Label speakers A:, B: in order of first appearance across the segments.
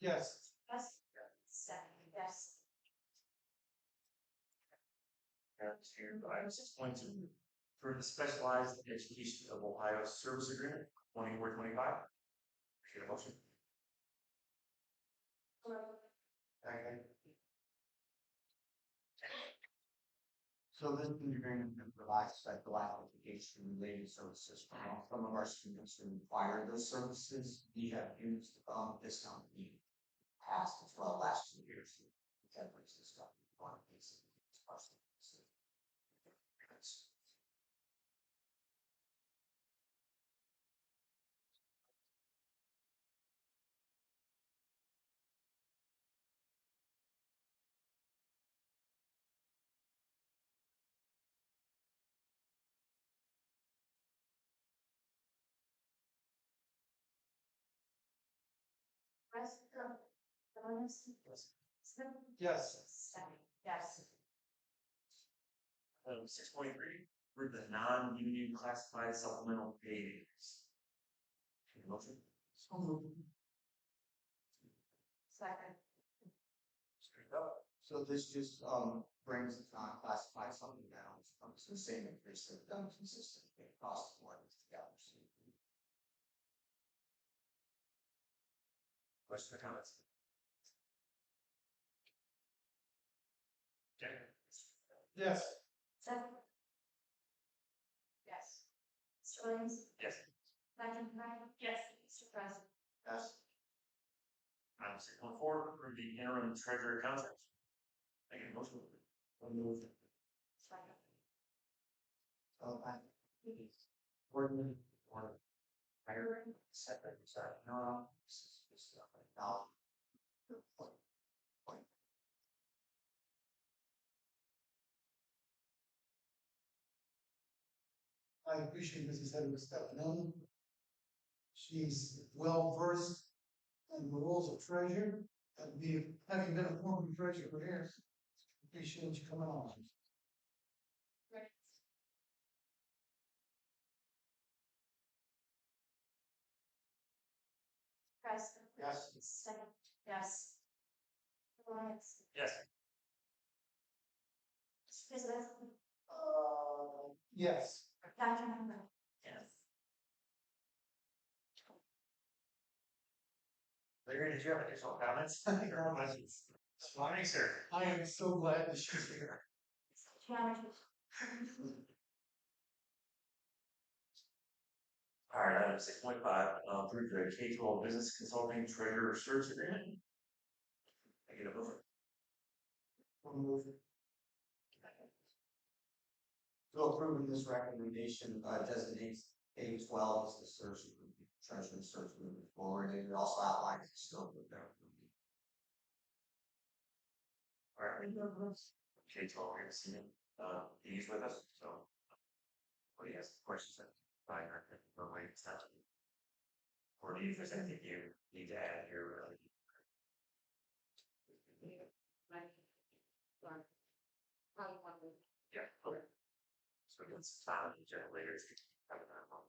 A: Yes.
B: Yes. Second, yes.
C: Item six point two, for the Specialized Education of Ohio Service Agreement, twenty-four, twenty-five. Appreciate a motion. Okay.
D: So this new agreement provides special application related services from all- some of our students who require those services. We have used um this company in the past as well last two years. That brings this up, one of these. these questions. That's-
B: Rest of the bonus. Smith.
A: Yes.
B: Second, yes.
C: Item six point three, for the non-union classified supplemental pays. Need a motion?
D: So moved.
B: Second,
C: Straight up.
D: So this just um brings the non-classified something down, um, it's the same increase that we've done consistently across the board together.
C: Questions or comments? Okay.
A: Yes.
B: second. Yes. Mr. Williams.
C: Yes.
B: McIntyre. Yes. Mr. President.
D: Yes.
C: Item six point four, approve the interim treasurer contract. Make a motion. Move.
B: Second.
D: So I. Gordon, or. Hiring, separate, sorry, no, this is just not right now.
A: I appreciate Mrs. Heather Stefanelli. She's well versed in the roles of treasurer, and we, having been a former treasurer for years, appreciate you coming on.
B: Right. President.
A: Yes.
B: Second, yes. Lawrence.
C: Yes.
B: Elizabeth.
A: Uh, yes.
B: Dr. Member.
C: Yes. Larry, did you have additional comments? Or questions? Morning, sir.
A: I am so glad that she's here.
B: Geometry.
C: All right, item six point five, approve the K twelve business consulting treasurer service agreement. I get a motion.
D: We'll move. So approving this recommendation uh, designates A twelve as the search, treasurer search moving forward, and it also outlines the scope of their.
C: All right. K twelve, we're seeing, uh, he's with us, so. Oh, Well, he has questions that, by our, or wait, it's not. Or do you, if there's anything you need to add here, really? Yeah, okay. So we got some time on the agenda later if you have another one.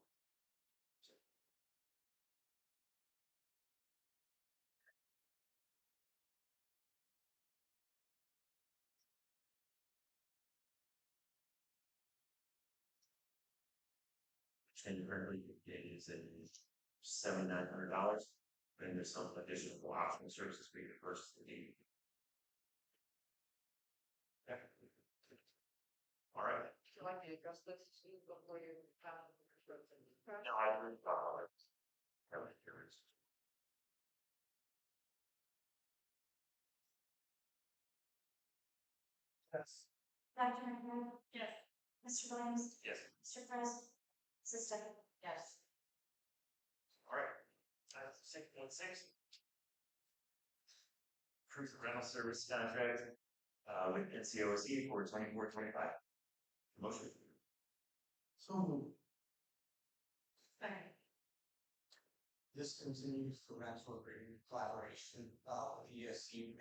C: Change currently it is in seven nine hundred dollars, and there's some additional optional services we could purchase if needed. Okay. All right.
E: Would you like me to address this to you before you? um,
C: No, I agree. with Bob on it. That was yours.
A: Yes.
B: Dr. Member. Yes. Mr. Williams.
C: Yes,
B: Mr. President. System. Yes.
C: all right. Uh, six point six. Proof of rental service contract, uh, with NCOC for twenty-four, twenty-five. Motion.
A: So moved.
B: Second.
D: This continues the rental agreement collaboration, uh, with ESC